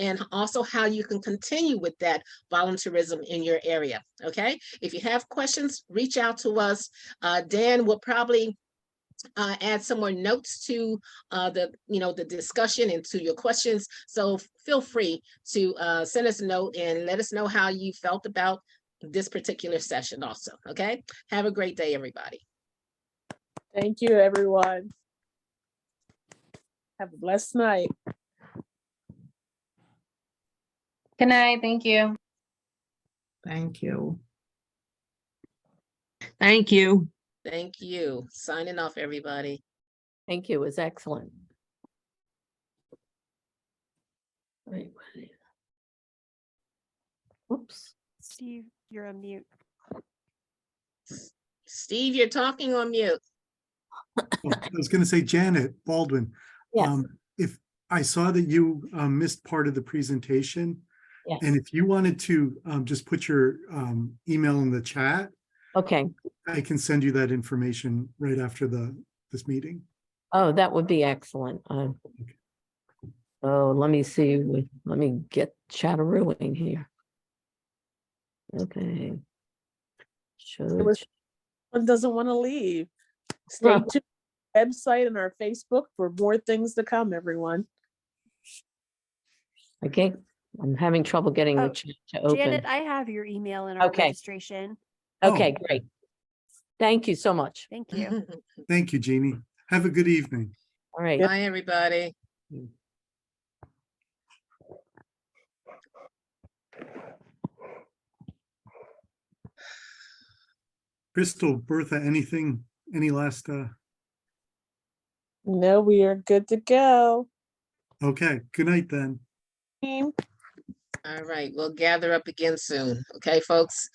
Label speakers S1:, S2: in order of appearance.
S1: and also how you can continue with that volunteerism in your area, okay? If you have questions, reach out to us. Uh, Dan will probably uh, add some more notes to uh, the, you know, the discussion and to your questions. So f- feel free to uh, send us a note and let us know how you felt about this particular session also, okay? Have a great day, everybody.
S2: Thank you, everyone. Have a blessed night.
S3: Good night, thank you.
S4: Thank you.
S5: Thank you.
S1: Thank you. Signing off, everybody.
S6: Thank you. It was excellent. Wait, what- Oops.
S7: Steve, you're on mute.
S1: Steve, you're talking on mute.
S8: Well, I was gonna say Janet Baldwin.
S6: Yes.
S8: um, If, I saw that you um, missed part of the presentation.
S6: Yes.
S8: And if you wanted to um, just put your um, email in the chat,
S6: Okay.
S8: I can send you that information right after the, this meeting.
S6: Oh, that would be excellent. Uh, Oh, let me see. wait, Let me get chatterooing here. Okay. Show
S2: was-
S6: ch-
S2: One doesn't want to leave. Stay
S6: Right.
S2: tuned. Website and our Facebook for more things to come, everyone.
S6: Okay, I'm having trouble getting
S7: Oh,
S6: the chat to
S7: Janet,
S6: open.
S7: I have your email in our
S6: Okay.
S7: registration.
S8: Oh,
S6: Okay, great. Thank you so much.
S7: Thank you.
S8: Thank you, Jeannie. Have a good evening.
S6: All right.
S1: Bye, everybody.
S8: Crystal, Bertha, anything, any last, uh,
S2: No, we are good to go.
S8: okay, good night then.
S2: Team.
S1: All right, we'll gather up again soon. Okay, folks?